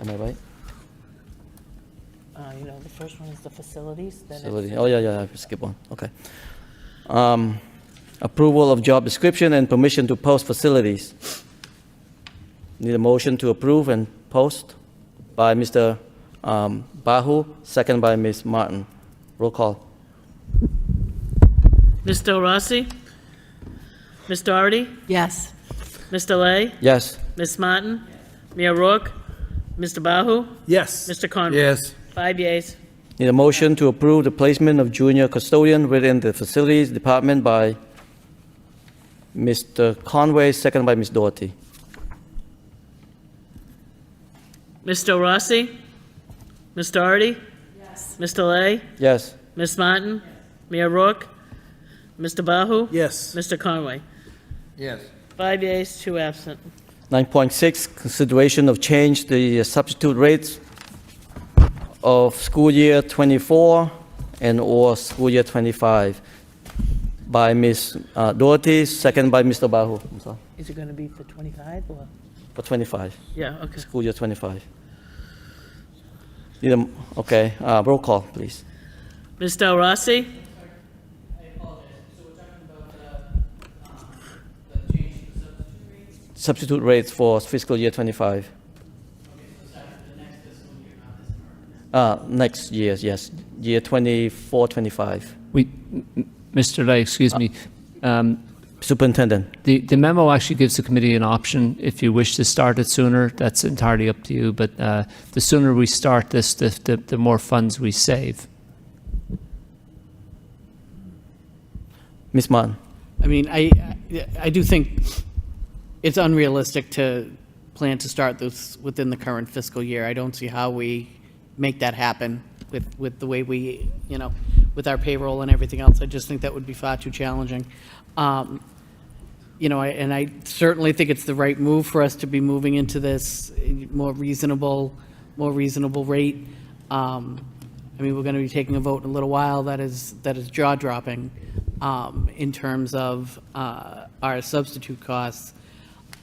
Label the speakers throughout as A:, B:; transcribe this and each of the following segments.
A: Am I right?
B: Uh, you know, the first one is the facilities, then
A: Facility.
B: it's
A: Oh, yeah, yeah, I skip one, okay. Um, Approval of job description and permission to post facilities. Need a motion to approve and post by Mr. um, Bahu, second by Ms. Martin. Roll call.
C: Ms. Del Rossi? Ms. Doherty?
D: Yes.
C: Ms. Delay?
A: Yes,
C: Ms. Martin? Mayor Rourke? Mr. Bahu?
E: Yes.
C: Mr. Conway?
E: Yes.
C: Five yeas.
A: need a motion to approve the placement of junior custodian within the facilities department by Mr. Conway, second by Ms. Doherty.
C: Ms. Del Rossi? Ms. Doherty? Yes. Ms. Delay?
A: Yes,
C: Ms. Martin? Mayor Rourke? Mr. Bahu?
E: Yes.
C: Mr. Conway?
E: Yes.
C: Five yeas, two absent.
A: 9.6, consideration of change the uh, substitute rates of school year '24 and/or school year '25 by Ms. uh, Doherty, second by Mr. Bahu, I'm sorry,
B: is it going to be for 25 or?
A: for '25,
C: Yeah, okay.
A: school year '25. Need a m- Okay, uh, roll call, please.
C: Ms. Del Rossi?
A: Substitute rates for fiscal year '25. Uh, Next year, yes, year '24, '25.
F: We, Mr. Lay, excuse me, um,
A: Superintendent.
F: the the memo actually gives the committee an option. If you wish to start it sooner, that's entirely up to you, but uh, the sooner we start this, the the the more funds we save.
A: Ms. Martin?
G: I mean, I, I do think it's unrealistic to plan to start this within the current fiscal year. I don't see how we make that happen with, with the way we, you know, with our payroll and everything else. I just think that would be far too challenging. Um, You know, I- and I certainly think it's the right move for us to be moving into this more reasonable, more reasonable rate. Um, I mean, we're going to be taking a vote in a little while that is, that is jaw-dropping um, in terms of uh, our substitute costs.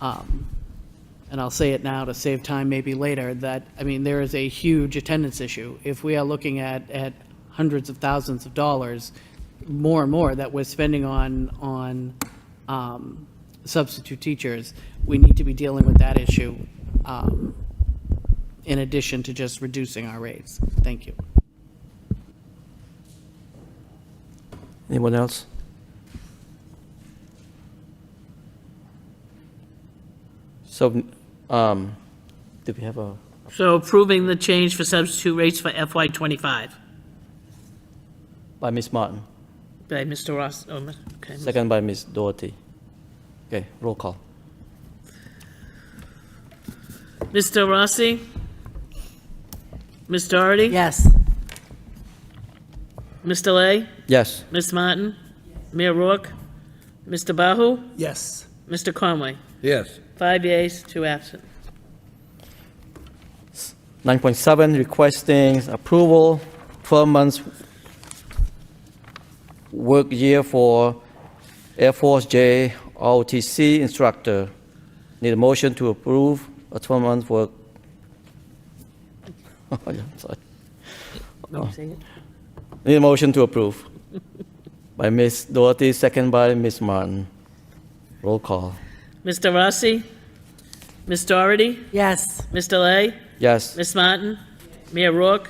G: Um, And I'll say it now to save time maybe later, that, I mean, there is a huge attendance issue. If we are looking at, at hundreds of thousands of dollars, more and more that we're spending on, on um, substitute teachers, we need to be dealing with that issue um, in addition to just reducing our rates. Thank you.
A: Anyone else? So, um, do we have a,
C: So approving the change for substitute rates for FY '25
A: by Ms. Martin,
C: by Mr. Ross, oh, Ms- okay. Ms.
A: second by Ms. Doherty. Okay, roll call.
C: Ms. Del Rossi? Ms. Doherty?
D: Yes.
C: Ms. Delay?
A: Yes,
C: Ms. Martin? Mayor Rourke? Mr. Bahu?
E: Yes.
C: Mr. Conway?
E: Yes.
C: Five yeas, two absent.
A: 9.7, requesting approval, 12 months work year for Air Force J ROTC instructor. Need a motion to approve a 12-month work. Oh, yeah, sorry.
B: Let me see it.
A: Need a motion to approve. By Ms. Doherty, second by Ms. Martin. Roll call.
C: Mr. Rossi? Ms. Doherty?
D: Yes.
C: Ms. Delay?
A: Yes,
C: Ms. Martin? Mayor Rourke?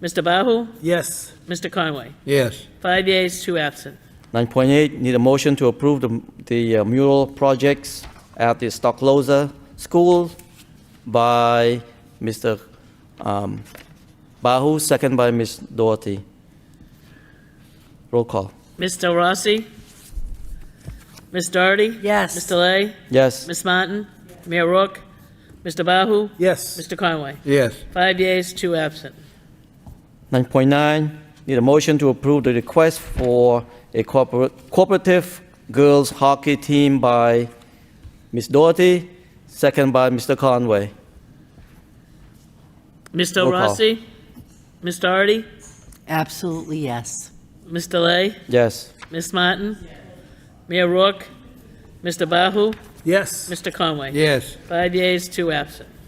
C: Mr. Bahu?
E: Yes.
C: Mr. Conway?
E: Yes.
C: Five yeas, two absent.
A: 9.8, need a motion to approve the the uh, mural projects at the Stockloza School by Mr. um, Bahu, second by Ms. Doherty. Roll call.
C: Mr. Rossi? Ms. Doherty?
D: Yes.
C: Ms. Delay?
A: Yes,
C: Ms. Martin? Mayor Rourke? Mr. Bahu?
E: Yes.
C: Mr. Conway?
E: Yes.
C: Five yeas, two absent.
A: 9.9, need a motion to approve the request for a corpora- cooperative girls hockey team by Ms. Doherty, second by Mr. Conway.
C: Mr.
A: Roll call.
C: Rossi? Ms. Doherty?
D: Absolutely yes.
C: Ms. Delay?
A: Yes,
C: Ms. Martin? Mayor Rourke? Mr. Bahu?
E: Yes.
C: Mr. Conway?
E: Yes.
C: Five yeas, two absent.